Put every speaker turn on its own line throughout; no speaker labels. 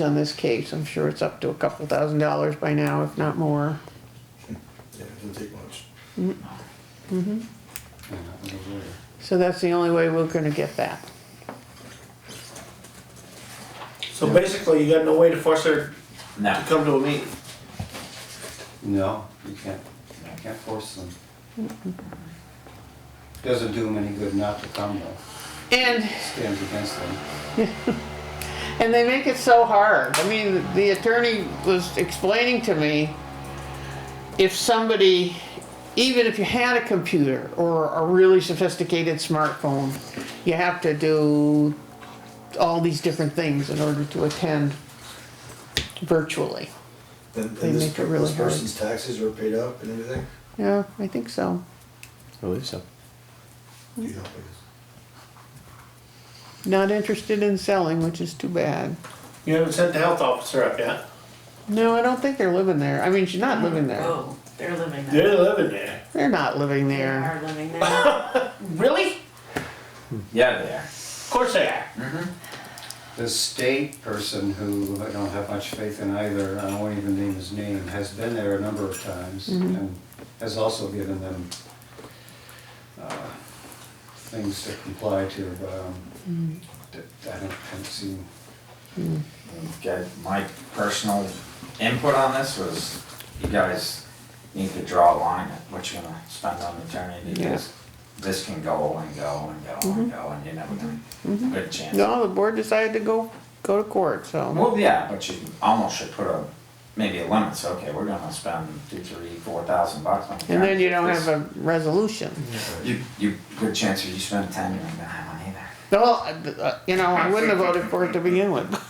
on this case. I'm sure it's up to a couple thousand dollars by now, if not more.
Yeah, it doesn't take much.
Yeah, that was over there.
So that's the only way we're gonna get that.
So basically, you got no way to force her to
No.
come to a meeting.
No, you can't, you can't force them. Doesn't do them any good not to come though,
And,
stands against them.
and they make it so hard. I mean, the attorney was explaining to me, if somebody, even if you had a computer or a really sophisticated smartphone, you have to do all these different things in order to attend virtually.
And, and
They
this,
make it
per-
really
this
hard.
person's taxes are paid up and everything?
Yeah, I think so.
I believe so.
You know, because-
Not interested in selling, which is too bad.
You haven't sent the health officer up yet.
No, I don't think they're living there. I mean, she's not living there.
Oh, they're living there.
They're living there.
They're not living
They
there.
are living there.
Really?
Yeah, they are.
Of course they are.
The state person who I don't have much faith in either, I won't even name his name, has been there a number of times and has also given them uh, things to comply to, but um, that- I don't, haven't seen,
You guys- my personal input on this was you guys need to draw a line at what you're gonna spend on maternity
Yeah. Mm-hmm.
because this can go and go and go and go and you're never gonna get a chance.
No, the board decided to go, go to court, so.
Well, yeah, but you almost should put a, maybe a limit, so, okay, we're gonna spend two, three, four thousand bucks on.
And then you don't
this.
have a resolution.
You, you, good chance if you spend ten, you're not gonna have money either.
Well, uh, you know, I wouldn't have voted for it to begin with.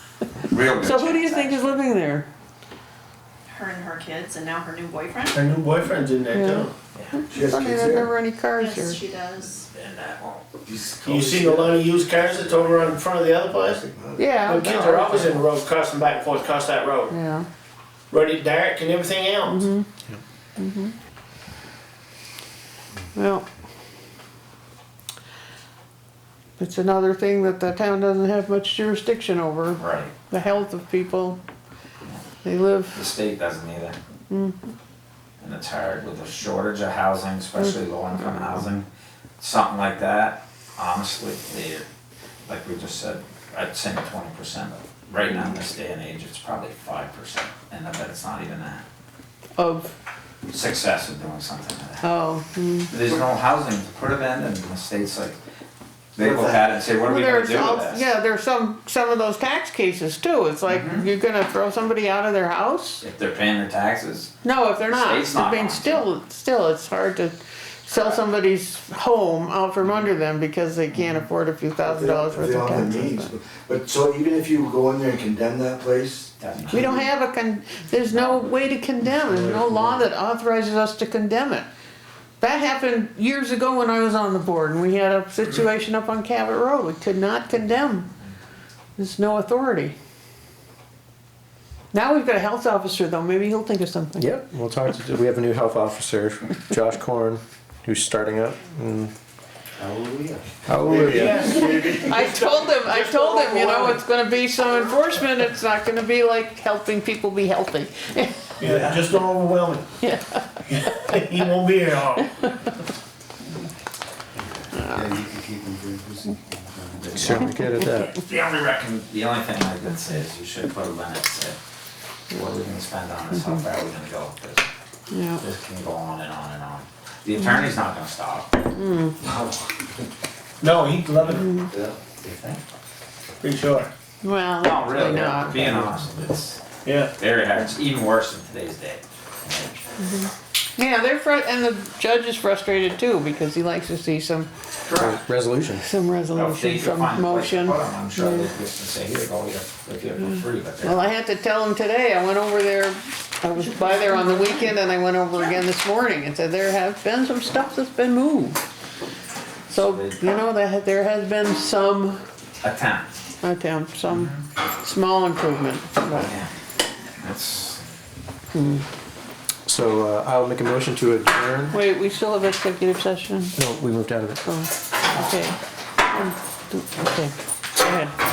Real good
So who do you
chance,
think is
actually.
living there?
Her and her kids, and now her new boyfriend?
Her new boyfriend's in there too.
She has
I mean,
kids
there
there.
never any cars here.
Yes, she does.
And that won't- these
You
codes-
seen a lot of used cars that's over on front of the other place?
Yeah.
The kids
no.
are Oh, always in the road, crossing back and forth across that road.
Yeah.
Run it dark and everything else.
Well. It's another thing that the town doesn't have much jurisdiction over,
Right,
the health of people. They live
the state doesn't either.
Mm-hmm.
And it's hard with the shortage of housing, especially
Mm-hmm.
low income housing, something like that, honestly, they, like we just said, I'd say twenty percent. Right now, in this day and age, it's probably five percent, and I bet it's not even that.
of,
success of doing something like that.
oh, hmm.
There's no housing to put it in, and the state's like, they look at it and say, what are we
Well,
gonna
there's
do
al-
with this?
yeah, there's some, some of those tax cases too, it's like,
Mm-hmm.
you're gonna throw somebody out of their house?
If they're paying their taxes,
No, if they're not,
State's
I
not
mean,
going to.
still, still, it's hard to sell somebody's home out from under them because they can't
Mm-hmm.
afford a few thousand dollars
If
worth
they
of
don't have the means,
taxes. but-
but- But, so even if you go in there and condemn that place,
doesn't.
We don't have a con, there's no way to condemn, there's no law that authorizes us to condemn it. That happened years ago when I was on the board and we had a situation up on Cabot Road, we could not condemn. There's no authority. Now we've got a health officer though, maybe he'll think of something.
Yep, we'll talk to, we have a new health officer, Josh Korn, who's starting up. and-
hallelujah.
Hallelujah.
I told him, I told him, you know, it's gonna be some enforcement, it's not gonna be like helping people be healthy.
Yeah, just don't overwhelm him. He won't be here all.
Yeah, you can keep them very busy.
Certainly good at that.
The only reckon, the only thing I could say is you should put a limit, say, what are we gonna spend on this, how far are we gonna go with this?
Yeah.
This can go on and on and on. The
Mm-hmm.
attorney's not gonna stop, do
No, he'd love it,
yeah.
you think?
pretty sure.
Well,
No,
actually
really,
not.
being honest, it's
Yeah.
very hard, it's even worse in today's day.
Yeah, they're fr- and the judge is frustrated too because he likes to see some
Correct.
Resolution.
some
Well, if they
resolution,
could
some
find a place to
motion.
put 'em, I'm sure they'd just say, here, go, you live here for free, but
Well,
they're,
I had to tell him today. I went over there. I was by there on the weekend, and I went over again this morning and said there have been some stuff that's been moved. So you know that there has been some
attempt,
attempt, some small improvement. but-
yeah. That's,
So uh, I'll make a motion to adjourn.
Wait, we still have executive session.
No, we moved out of it.
Oh, okay. Um, do- Okay. Go ahead.